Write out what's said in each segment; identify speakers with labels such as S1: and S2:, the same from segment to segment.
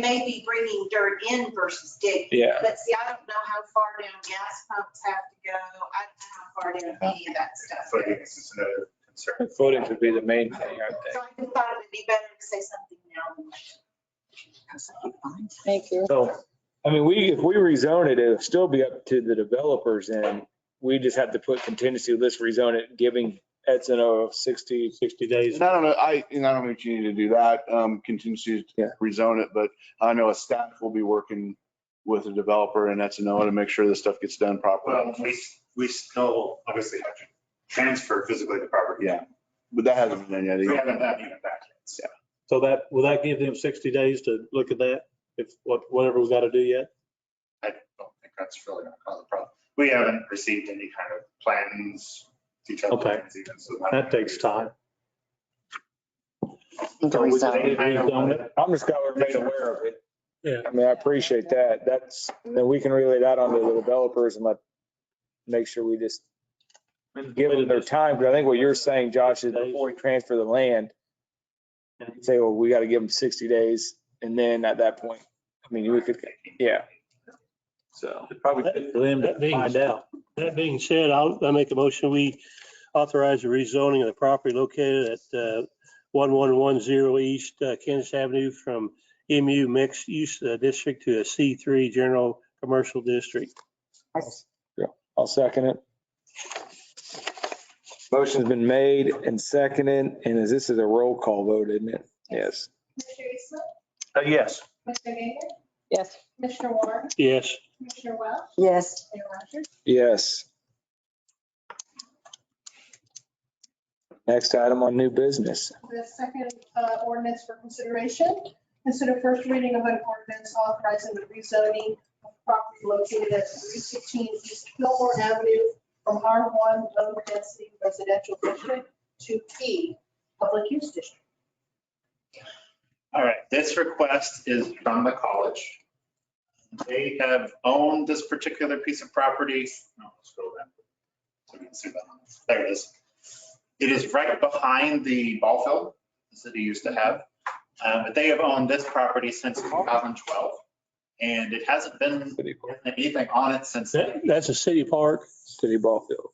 S1: may be bringing dirt in versus digging.
S2: Yeah,
S1: But see, I don't know how far down gas pumps have to go. I don't know how far down any of that stuff
S3: Footings
S1: goes.
S3: is another concern.
S2: footings would be the main thing, I
S1: So
S2: think.
S1: I just thought it'd be better to say something now than later.
S4: Thank you.
S2: So, I mean, we, if we rezone it, it'll still be up to the developers and we just have to put contingency, let's rezone it, giving Edson a 60, 60 days.
S5: And I don't know, I, and I don't know if you need to do that, um, continue
S2: Yeah.
S5: to rezone it, but I know a staff will be working with a developer and that's to make sure this stuff gets done properly.
S3: Well, we, we still obviously have to transfer physically the property.
S5: Yeah. But that hasn't been done
S3: We
S5: yet.
S3: haven't done even that yet.
S6: So that, will that give them 60 days to look at that, if, what- whatever we got to do yet?
S3: I don't think that's really going to cause a problem. We haven't received any kind of plans, detailed
S6: Okay.
S3: plans even, so.
S6: That takes time.
S4: Think we
S6: So
S4: rezone.
S6: we rezone it.
S2: I'm just glad we're made aware of it.
S6: Yeah.
S2: I mean, I appreciate that. That's, then we can relay that on to the developers and let, make sure we just give them their time. Because I think what you're saying, Josh, is before we transfer the land, say, well, we got to give them 60 days. And then at that point, I mean, we could, yeah. So.
S6: Probably for them
S7: That
S6: to
S7: being-
S6: find out.
S7: That being said, I'll, I make a motion, we authorize the rezoning of the property located at uh, 1110 East uh, Kansas Avenue from MU Mixed Use uh, District to a C3 General Commercial District.
S2: I'll second it. Motion's been made and seconded, and is this is a roll call vote, isn't it? Yes.
S8: Mr. Eastman?
S2: Yes.
S8: Mr. Gager?
S4: Yes.
S8: Commissioner Warren?
S7: Yes,
S8: Commissioner Welch?
S4: Yes.
S8: Mayor Rogers?
S2: Yes. Next item on new business.
S8: The second uh, ordinance for consideration, consider first reading of an ordinance authorizing the rezoning of property located at 316 East Fillmore Avenue from R1 Low Density Residential District to P Public Use District.
S3: All right, this request is from the college. They have owned this particular piece of property. No, scroll down. So we can see that. There it is. It is right behind the ball field the city used to have. Uh, But they have owned this property since 2012. And it hasn't been
S2: City Park.
S3: anything on it since then.
S7: that- that's a city park.
S2: City ball field.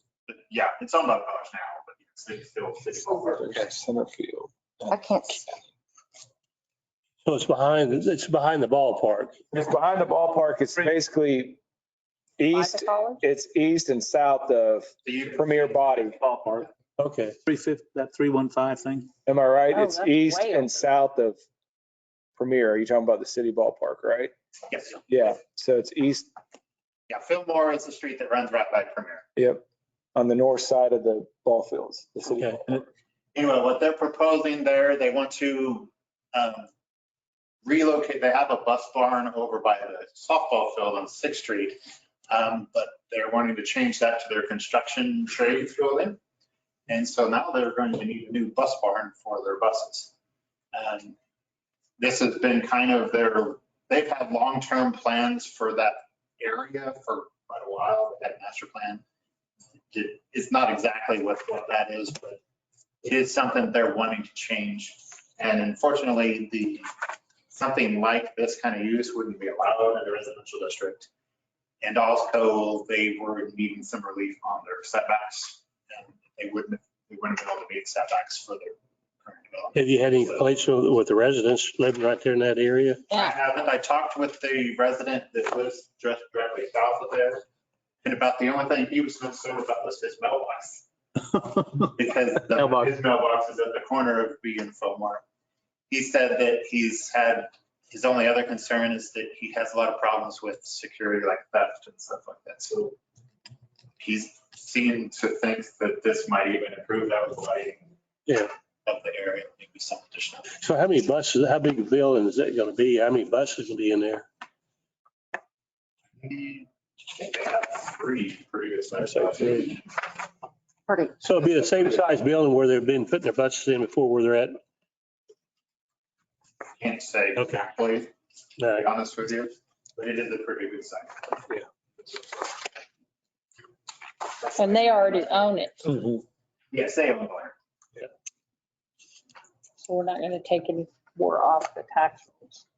S3: Yeah, it's owned by the college now, but it's- it's still city.
S2: Center field.
S4: I can't. s-
S7: So it's behind, it's behind the ballpark.
S2: It's behind the ballpark. It's basically east,
S4: Like a collar?
S2: it's east and south of Premier Body.
S6: Ballpark.
S7: Okay,
S6: 350, that 315 thing?
S2: Am I right?
S4: Oh,
S2: It's
S4: that's
S2: east
S4: way over.
S2: and south of Premier. Are you talking about the city ballpark, right?
S3: Yes.
S2: Yeah, so it's east,
S3: Yeah, Fillmore is the street that runs right by Premier.
S2: yep, on the north side of the ball fields. the city
S7: Okay.
S2: ballpark.
S3: anyway, what they're proposing there, they want to um, relocate, they have a bus barn over by the softball field on Sixth Street. um, But they're wanting to change that to their construction trades building. And so now they're going to need a new bus barn for their buses. Um, This has been kind of their, they've had long-term plans for that area for quite a while, that master plan. It- It's not exactly what, what that is, but it is something they're wanting to change. And unfortunately, the, something like this kind of use wouldn't be allowed in a residential district. And also, they were needing some relief on their setbacks. and They wouldn't, they wouldn't be able to meet setbacks for their current development.
S7: have you had any complaints with with the residents living right there in that area?
S3: I haven't, I talked with the resident that lives just directly south of there. And about the only thing he was concerned about was his mailbox. because the-
S6: Mailbox.
S3: his mailbox is at the corner of B and Fillmore. He said that he's had, his only other concern is that he has a lot of problems with security, like theft and stuff like that. So he's seemed to think that this might even improve that with lighting.
S7: Yeah.
S3: Of the area, maybe some additional.
S7: So how many buses, how big a building is that going to be? How many buses will be in there?
S3: I think they have three previous.
S7: I'd say three.
S4: Pretty.
S7: So it'll be the same size building where they've been putting their buses in before where they're at?
S3: Can't say
S7: Okay.
S3: exactly,
S7: All
S3: to
S7: right.
S3: be honest with you, but it is a pretty good site.
S4: And they already own it,
S3: Yes, they own it.
S4: so we're not going to take any more off the tax rolls.